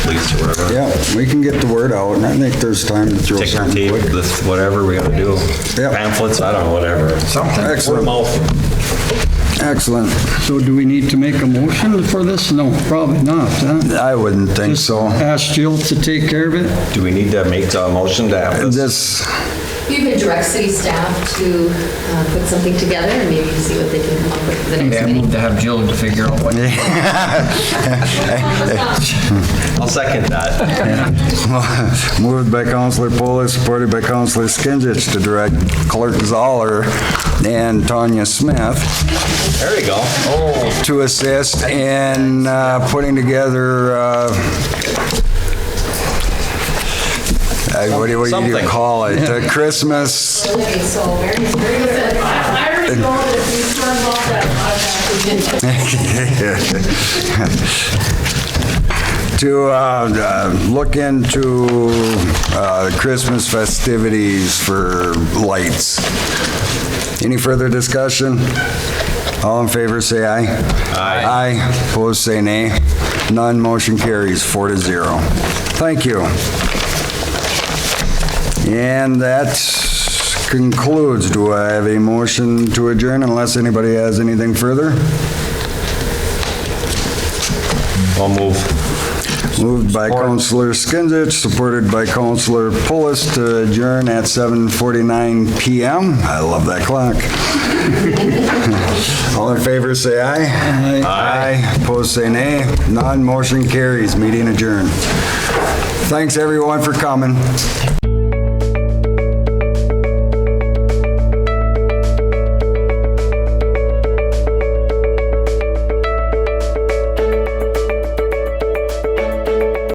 whatever. Yeah, we can get the word out, and I think there's time to throw Ticker something tape, quick. this, whatever we gotta do. Yep. Pamphlets, I don't know, whatever. Something. Word Excellent. of mouth. Excellent. So do we need to make a motion for this? No, probably not, huh? I wouldn't think so. Ask Jill to take care of it? Do we need to make a motion to have this? This, You could direct city staff to uh, put something together and maybe see what they can come up with for the next Yeah, I need meeting. to have Jill to figure out what. I'll second that. moved by Counselor Polis, supported by Counselor Skinsich to direct Clerk Zoller and Tanya Smith There we go. Oh. to assist in uh, putting together, uh, uh, what do what do you Something. call it? A Christmas, Okay, so very, very good. I already know that if we turn off that automatic, to uh, uh, look into uh, Christmas festivities for lights. Any further discussion? All in favor, say aye. Aye. Aye, opposed, say nay. None, motion carries four to zero. Thank you. And that concludes. Do I have a motion to adjourn unless anybody has anything further? I'll move. Moved by Counselor Skinsich, supported by Counselor Pulis to adjourn at 7:49 PM. I love that clock. All in favor, say aye. Aye. Opposed, say nay. None, motion carries. Meeting adjourned. Thanks, everyone, for coming.